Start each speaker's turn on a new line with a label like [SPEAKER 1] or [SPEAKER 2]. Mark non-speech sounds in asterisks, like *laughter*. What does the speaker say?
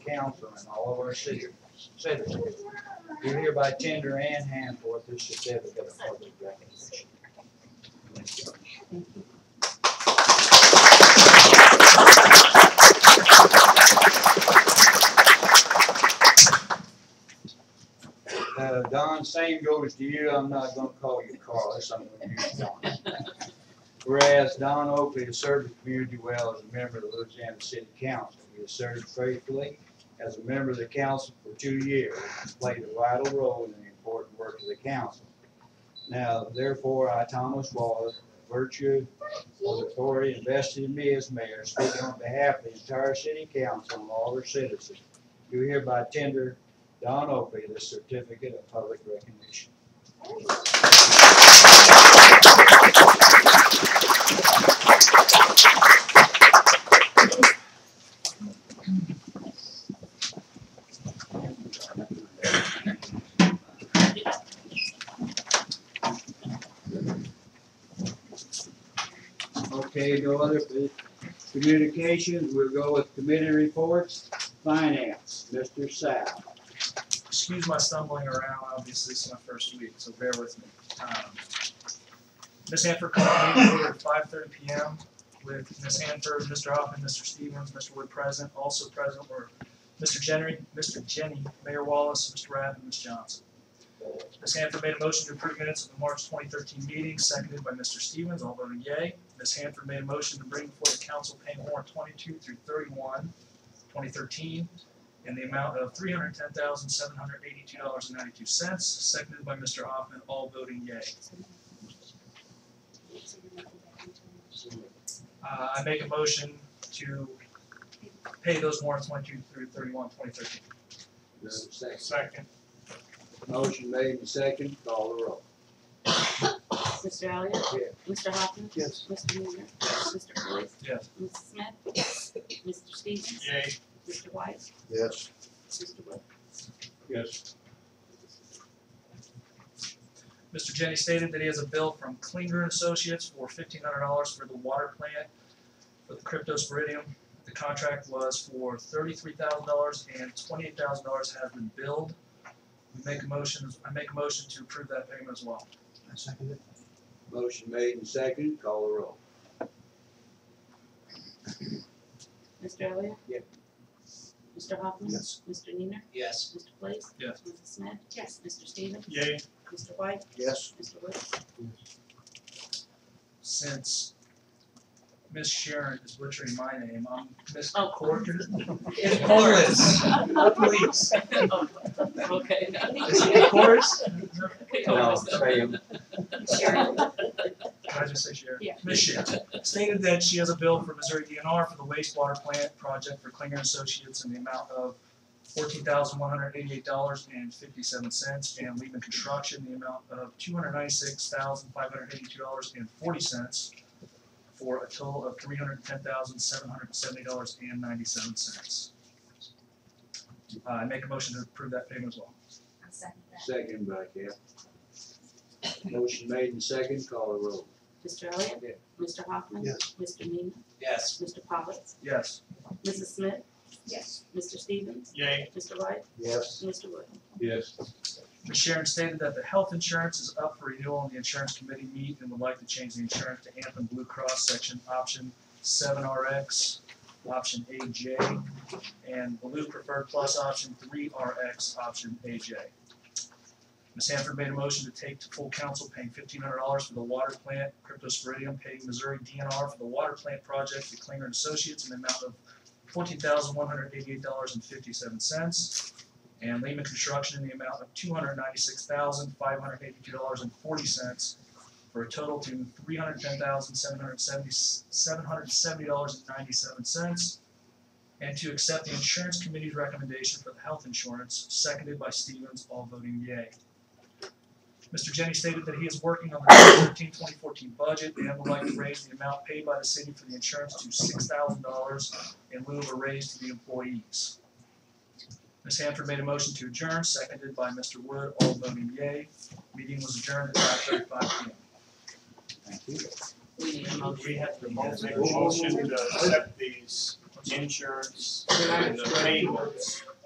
[SPEAKER 1] council and all of our citi- citizens, do hereby tender and hand forth this certificate of public recognition. Uh, Don, same goes to you. I'm not gonna call you Carlos. I'm gonna use Don. Whereas Don Oakley has served the community well as a member of the Louisiana City Council. He has served faithfully as a member of the council for two years, and played a vital role in the important work of the council. Now therefore, I, Thomas Wallace, virtue of the authority invested in me as mayor, speaking on behalf of the entire city council and all their citizens, do hereby tender Don Oakley the certificate of public recognition. Okay, no other communications, we'll go with committee reports. Finance, Mr. Sal.
[SPEAKER 2] excuse my stumbling around, obviously it's my first week, so bear with me. Um, Ms. Hanford called me here at five thirty P M with Ms. Hanford, Mr. Hoffman, Mr. Stevens, Mr. Wood present, also present were Mr. Jenny, Mr. Jenny, Mayor Wallace, Mr. Rabb, and Ms. Johnson. Ms. Hanford made a motion to approve minutes of the March twenty thirteen meeting, seconded by Mr. Stevens, all voted yay. Ms. Hanford made a motion to bring before the council pay warrant twenty-two through thirty-one, twenty thirteen, in the amount of three hundred ten thousand seven hundred eighty-two dollars and ninety-two cents, seconded by Mr. Hoffman, all voting yay. Uh, I make a motion to pay those warrants twenty-two through thirty-one, twenty thirteen. Second.
[SPEAKER 1] Motion made and second, call the roll.
[SPEAKER 3] Mr. Elliott?
[SPEAKER 1] Yes.
[SPEAKER 3] Mr. Hoffman?
[SPEAKER 1] Yes.
[SPEAKER 3] Mr. Moore? Mr. Price?
[SPEAKER 2] Yes.
[SPEAKER 3] Mrs. Smith? Mr. Stevens?
[SPEAKER 2] Yay.
[SPEAKER 3] Mr. White?
[SPEAKER 1] Yes.
[SPEAKER 3] Mr. Wood?
[SPEAKER 1] Yes.
[SPEAKER 2] Mr. Jenny stated that he has a bill from Klinger and Associates for fifteen hundred dollars for the water plant for the cryptosporidium. The contract was for thirty-three thousand dollars and twenty-eight thousand dollars has been billed. We make a motion, I make a motion to approve that payment as well.
[SPEAKER 1] Motion made and second, call the roll.
[SPEAKER 3] Mr. Elliott?
[SPEAKER 1] Yeah.
[SPEAKER 3] Mr. Hoffman?
[SPEAKER 1] Yes.
[SPEAKER 3] Mr. Neener?
[SPEAKER 1] Yes.
[SPEAKER 3] Mr. Place?
[SPEAKER 2] Yes.
[SPEAKER 3] Mrs. Smith? Yes. Mr. Stevens?
[SPEAKER 2] Yay.
[SPEAKER 3] Mr. White?
[SPEAKER 1] Yes.
[SPEAKER 3] Mr. Wood?
[SPEAKER 2] since Miss Sharon is butchering my name, I'm Miss
[SPEAKER 3] Oh.
[SPEAKER 2] Corker.
[SPEAKER 3] Yes.
[SPEAKER 2] Corus.
[SPEAKER 3] *laughs*
[SPEAKER 2] Please.
[SPEAKER 1] *laughs*
[SPEAKER 3] Okay.
[SPEAKER 2] Is it Corus?
[SPEAKER 1] No,
[SPEAKER 3] Sharon.
[SPEAKER 2] Can I just say Sharon?
[SPEAKER 3] Yeah.
[SPEAKER 2] Miss Sharon stated that she has a bill for Missouri DNR for the wastewater plant project for Klinger and Associates in the amount of fourteen thousand one hundred eighty-eight dollars and fifty-seven cents, and Lehman Construction, the amount of two hundred ninety-six thousand five hundred eighty-two dollars and forty cents, for a total of three hundred ten thousand seven hundred seventy dollars and ninety-seven cents. Uh, I make a motion to approve that payment as well.
[SPEAKER 1] Second by Cap. Motion made and second, call the roll.
[SPEAKER 3] Mr. Elliott?
[SPEAKER 1] Yeah.
[SPEAKER 3] Mr. Hoffman? Yes. Mr. Neener?
[SPEAKER 4] Yes.
[SPEAKER 3] Mr. Powers?
[SPEAKER 2] Yes.
[SPEAKER 3] Mrs. Smith? Yes. Mr. Stevens?
[SPEAKER 2] Yay.
[SPEAKER 3] Mr. White?
[SPEAKER 1] Yes.
[SPEAKER 3] Mr. Wood?
[SPEAKER 1] Yes.
[SPEAKER 2] Ms. Sharon stated that the health insurance is up for renewal and the insurance committee meet and would like to change the insurance to Anthem Blue Cross section option seven RX, option AJ, and Blue Preferred Plus option three RX, option AJ. Ms. Hanford made a motion to take to full council paying fifteen hundred dollars for the water plant, Cryptosporidium paying Missouri DNR for the water plant project to Klinger and Associates in the amount of fourteen thousand one hundred eighty-eight dollars and fifty-seven cents and Lehman Construction in the amount of two hundred ninety-six thousand, five hundred eighty-two dollars and forty cents for a total to three hundred ten thousand, seven hundred seventy, seven hundred seventy dollars and ninety-seven cents. And to accept the insurance committee's recommendation for the health insurance, seconded by Stevens, all voting yay. Mr. Jenny stated that he is working on the 2013-2014 budget and would like to raise the amount paid by the city for the insurance to six thousand dollars in lieu of a raise to the employees. Ms. Hanford made a motion to adjourn, seconded by Mr. Wood, all voting yay. Meeting was adjourned at five thirty-five P M.
[SPEAKER 1] Thank you.
[SPEAKER 3] We need a motion.
[SPEAKER 4] We have to make a motion to accept these insurance and the payments